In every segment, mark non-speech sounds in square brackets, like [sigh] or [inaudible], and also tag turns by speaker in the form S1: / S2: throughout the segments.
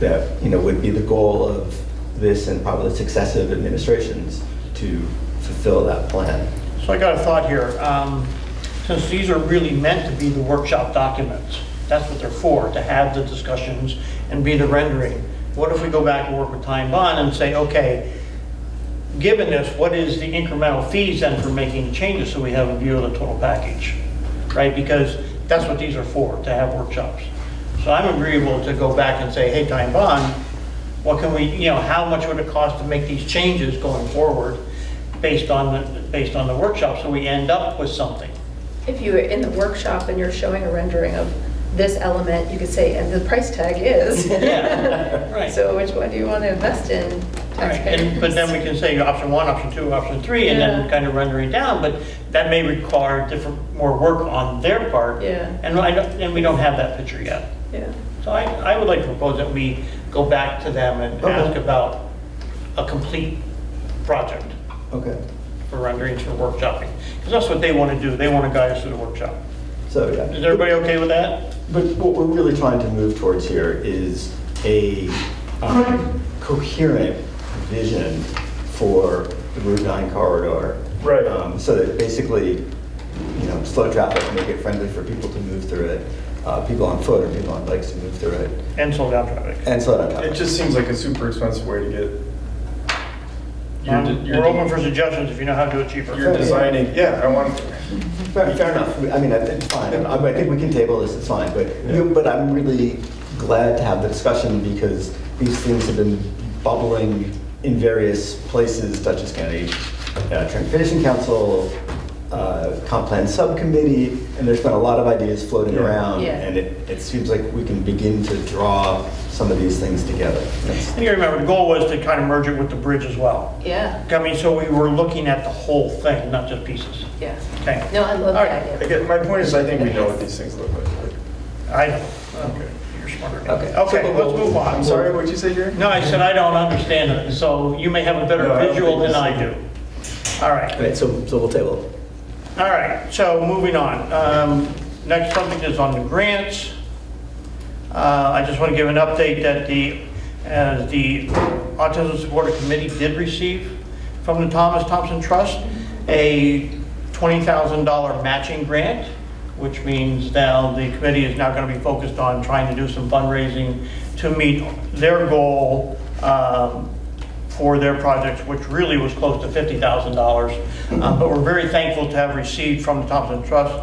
S1: that, you know, would be the goal of this and probably successive administrations to fulfill that plan.
S2: So I got a thought here. Um, Since these are really meant to be the workshop documents, that's what they're for, to have the discussions and be the rendering. What if we go back and work with Time Bond and say, okay, given this, what is the incremental fees then for making the changes so we have a view of the total package? Right, because that's what these are for, to have workshops. So I'm agreeable to go back and say, hey, Time Bond, what can we, you know, how much would it cost to make these changes going forward based on, the based on the workshop, so we end up with something?
S3: If you were in the workshop and you're showing a rendering of this element, you could say, and the price tag is.
S2: Yeah, right.
S3: So which one do you want to invest in?
S2: Right, and, but then we can say option one, option two, option three, and then
S3: Yeah.
S2: kind of render it down, but that may require different, more work on their part.
S3: Yeah.
S2: And I, don't- and we don't have that picture yet.
S3: Yeah.
S2: So I, I would like to propose that we go back to them and
S1: Okay.
S2: ask about a complete project
S1: Okay.
S2: for renderings for workshopping. Because that's what they want to do, they want to guide us through the workshop.
S1: So, yeah.
S2: Is everybody okay with that?
S1: But what we're really trying to move towards here is a um, coherent vision for the Route 9 corridor.
S4: Right.
S1: Um, So that basically, you know, slow traffic, make it friendly for people to move through it, uh, people on foot or people on bikes to move through it,
S2: And slow down traffic.
S1: and slow down
S4: It
S1: traffic.
S4: just seems like a super expensive way to get. your de-
S2: Um,
S4: your
S2: We're
S4: de-
S2: open for suggestions if you know how to do it cheaper.
S4: You're designing, yeah, I want,
S1: Fair fair enough, I mean, I think, fine, I mean, I think we can table this, it's fine, but, you- but I'm really glad to have the discussion because these things have been bubbling in various places, Dutchess County uh, Transportation Council, uh, Comp Plan Subcommittee, and there's been a lot of ideas floating
S4: Yeah.
S1: around,
S3: Yeah.
S1: and it, it seems like we can begin to draw some of these things together. That's-
S2: And you remember, the goal was to kind of merge it with the bridge as well.
S3: Yeah,
S2: I mean, so we were looking at the whole thing, not just pieces.
S3: yeah.
S2: Okay.
S3: No, I love
S2: All
S3: that
S2: right.
S3: idea.
S4: I get, my point is, I think we know what these things look like.
S2: I don't. Okay. You're smarter than me.
S1: Okay.
S2: Okay, let's move on.
S4: I'm sorry, what'd you say, Jerry?
S2: No, I said I don't understand it, so you may have a better
S4: No, I don't
S2: visual
S4: think
S2: than I do.
S4: so.
S2: All right.
S1: All right, so, so we'll table.
S2: All right, so moving on. Um, Next subject is on the grants. Uh, I just want to give an update that the, as the Autism Supporter Committee did receive from the Thomas Thompson Trust, a $20,000 matching grant, which means now the committee is now going to be focused on trying to do some fundraising to meet their goal um, for their projects, which really was close to $50,000. Uh, But we're very thankful to have received from the Thompson Trust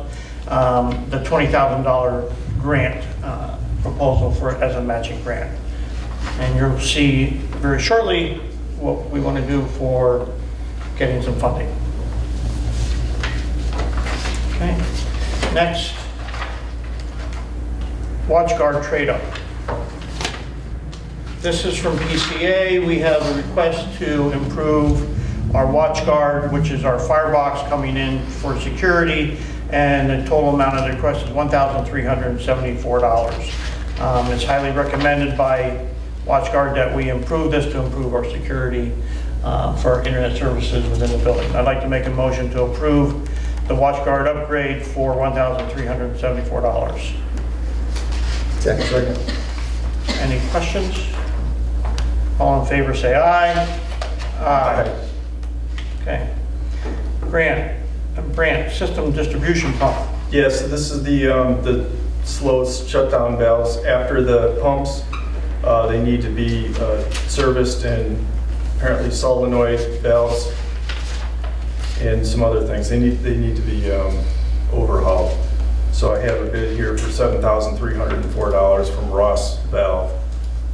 S2: um, the $20,000 grant uh, proposal for, as a matching grant. And you'll see very shortly what we want to do for getting some funding. Okay, next, watch guard trade-up. This is from PCA. We have a request to improve our watch guard, which is our firebox coming in for security, and the total amount of the request is $1,374. Um, It's highly recommended by watch guard that we improve this to improve our security uh, for our internet services within the building. I'd like to make a motion to approve the watch guard upgrade for $1,374.
S1: Second.
S2: Any questions? All in favor, say aye. Aye. Okay. Grant, uh, Brant, system distribution pump.
S4: Yeah, so this is the, um, the slowest shutdown valves after the pumps. Uh, they need to be, uh, serviced and apparently solenoid valves and some other things. They need, they need to be, um, overhauled. So I have a bid here for seven thousand three hundred and four dollars from Ross Valve.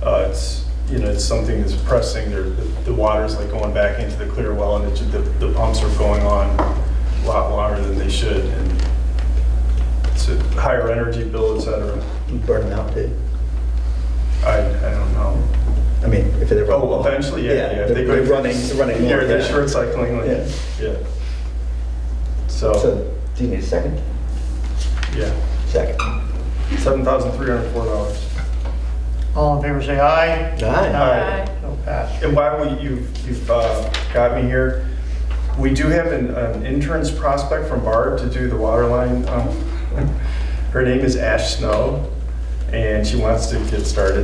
S4: Uh, it's, you know, it's something that's pressing, There- the, the water's like going back into the clear well and it, ju- the, the pumps are going on a lot longer than they should and it's a higher energy bill, et cetera.
S1: Burn them out, too.
S4: I, I don't know.
S1: eh? I mean, if they're.
S4: Oh, eventually, yeah, yeah. if
S1: They're they're
S4: go-
S1: running, they're running.
S4: Yeah,
S1: more,
S4: they're
S1: yeah.
S4: short cycling, like,
S1: Yeah.
S4: yeah. So,
S1: So, do you need a second?
S4: yeah,
S1: Second.
S4: $7,304.
S2: All in favor, say aye.
S1: Aye.
S3: Aye.
S2: So passed.
S4: And why we, you've, you've uh, got me here, we do have an- an interns prospect from Barb to do the water [laughs] line. um, Her name is Ash Snow, and she wants to get started